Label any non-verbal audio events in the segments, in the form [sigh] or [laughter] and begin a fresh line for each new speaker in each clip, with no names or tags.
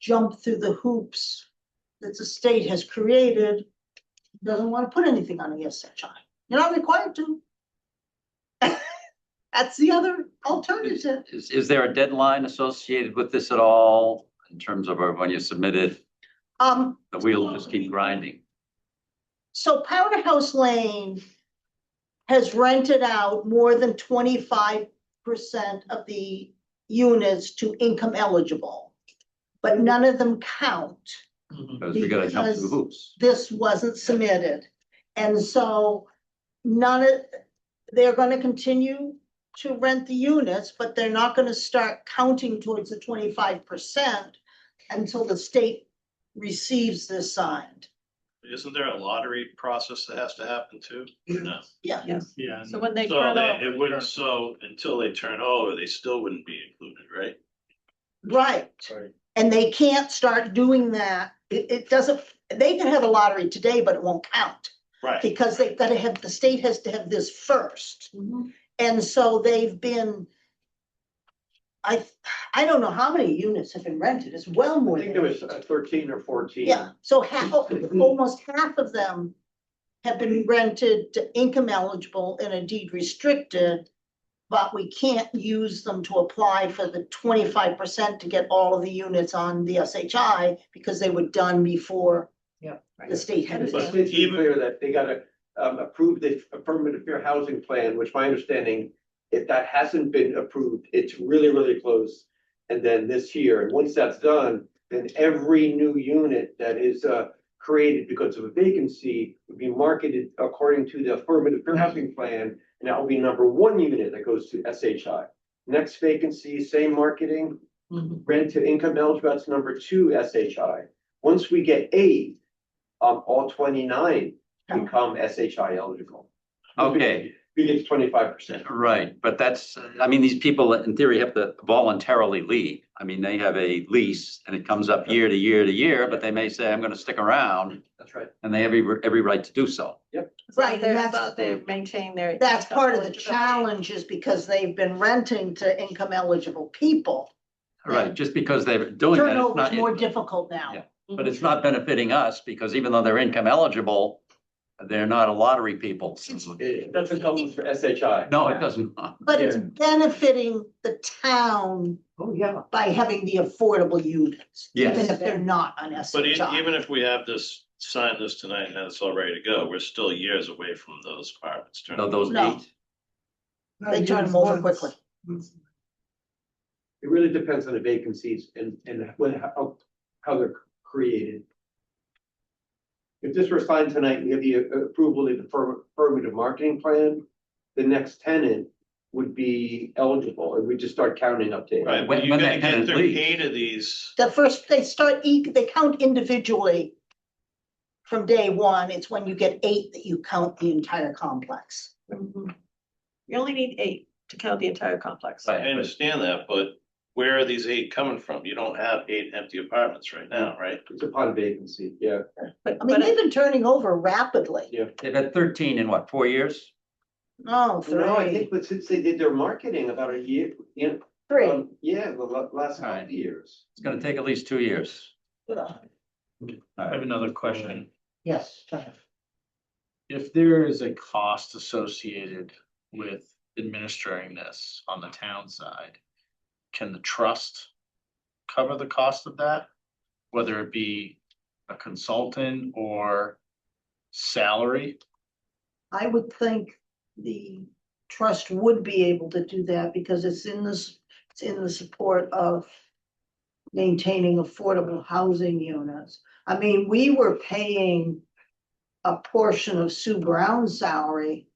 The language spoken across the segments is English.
jump through the hoops that the state has created, doesn't want to put anything on ESHI. You're not required to. [laughs] That's the other alternative.
Is, is there a deadline associated with this at all in terms of uh, when you submit it?
Um,
The wheel just keep grinding.
so Powderhouse Lane has rented out more than twenty-five percent of the units to income eligible. But none of them count.
Because we gotta jump through
Because-
hoops.
this wasn't submitted. And so none of, they're gonna continue to rent the units, but they're not gonna start counting towards the twenty-five percent until the state receives this signed.
Isn't there a lottery process that has to happen too? No.
Yeah.
Yeah.
So when they
So
turn
they,
over,
it wouldn't, so until they turn over, they still wouldn't be included, right?
Right,
Sorry.
and they can't start doing that. It, it doesn't, they can have a lottery today, but it won't count.
Right.
Because they've gotta have, the state has to have this first.
Mm-hmm.
And so they've been. I, I don't know how many units have been rented, it's well
I
more
think there
than,
was uh, Mm-hmm. thirteen or fourteen.
yeah, so half, almost half of them. Have been rented to income eligible and indeed restricted. But we can't use them to apply for the twenty-five percent to get all of the units on the SHI because they were done before.
Yeah, right.
The state had.
But
it.
It's pretty clear that they gotta um approve the affirmative fair housing plan, which my understanding, if that hasn't been approved, it's really, really close. And then this year, and once that's done, then every new unit that is uh created because of a vacancy would be marketed according to the affirmative fair housing plan. And that will be number one unit that goes to SHI. Next vacancy, same marketing,
Mm-hmm.
rent to income eligible, that's number two SHI. Once we get eight, um, all twenty-nine become SHI eligible.
Okay,
We get twenty-five percent.
right, but that's, I mean, these people in theory have to voluntarily leave. I mean, they have a lease and it comes up year to year to year, but they may say, I'm gonna stick around
That's right.
and they have every, every right to do so.
Right,
Right,
and
they're
that's-
about to maintain their.
That's part of the
eligibility.
challenge is because they've been renting to income eligible people.
Right, just because they're doing that, Oh, it's
Turnover
not,
is more difficult now.
Yeah. but it's not benefiting us because even though they're income eligible, they're not a lottery people.
It doesn't come for SHI.
No, it doesn't.
But it's
Yeah.
benefiting the town
Oh, yeah.
by having the affordable units. Even
Yes.
if they're not on SHI.
But e- even if we have this, sign this tonight and it's all ready to go, we're still years away from those apartments turning.
No, those
No.
eight.
They turn them over quickly.
It really depends on the vacancies and, and when, how, how they're created. If this were signed tonight, we have the uh, approval of the affirm- affirmative marketing plan, the next tenant would be eligible, and we just start counting up to. eight.
Right,
When-
but you're
when
gonna
that
get
tenant
through
leaves.
eight of these,
The first, they start, e- they count individually. From day one, it's when you get eight that you count the entire complex.
Mhm. You only need eight to count the entire complex.
I understand that, but where are these eight coming from? You don't have eight empty apartments right now, right?
It's upon vacancy, yeah.
But,
I mean,
but
they've been turning over rapidly.
They've had thirteen in what, four years?
No,
No, I
Oh, three,
think, but since they did their marketing about a year, you know,
three.
um, yeah, the la- last
Right.
five years.
It's gonna take at least two years.
I have another question.
Yes.
If there is a cost associated with administering this on the town side, can the trust cover the cost of that? Whether it be a consultant or salary?
I would think the trust would be able to do that because it's in this, it's in the support of maintaining affordable housing units. I mean, we were paying a portion of Sue Brown's salary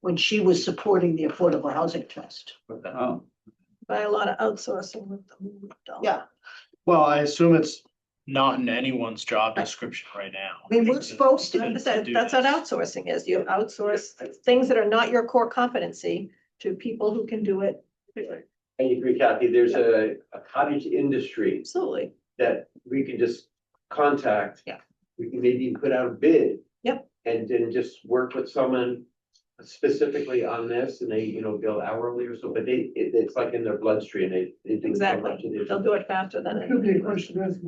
when she was supporting the Affordable Housing Trust.
Oh,
by a lot of outsourcing with them. don't.
Yeah.
Well, I assume it's not in anyone's job description right now.
I mean, we're supposed to.
That's that- that's what outsourcing is. You outsource things that are not your core competency to people who can do it.
I agree, Kathy, there's a a cottage industry
Absolutely.
that we can just contact.
Yeah.
We can maybe put out a bid.
Yep.
And then just work with someone specifically on this and they, you know, bill hourly or so, but they, it, it's like in their bloodstream, they. they do so
Exactly.
much of this.
They'll do it faster than.
Could be a question of